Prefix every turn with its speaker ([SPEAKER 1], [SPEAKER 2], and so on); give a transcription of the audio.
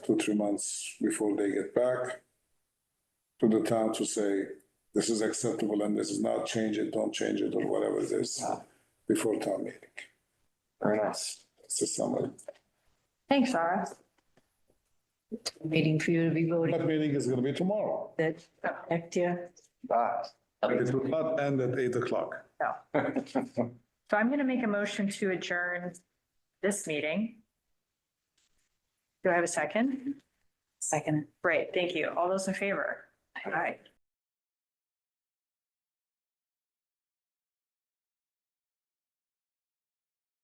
[SPEAKER 1] two, three months before they get back to the town to say, this is acceptable and this is not, change it, don't change it, or whatever it is, before town meeting.
[SPEAKER 2] Very nice.
[SPEAKER 1] It's a summary.
[SPEAKER 3] Thanks, Sarah. Waiting for you to be voted.
[SPEAKER 1] That meeting is gonna be tomorrow,
[SPEAKER 3] That, next year.
[SPEAKER 2] Ah.
[SPEAKER 1] but it will not end at eight o'clock.
[SPEAKER 3] So I'm going to make a motion to adjourn this meeting. Do I have a second? Second. Great, thank you. All those in favor? All right.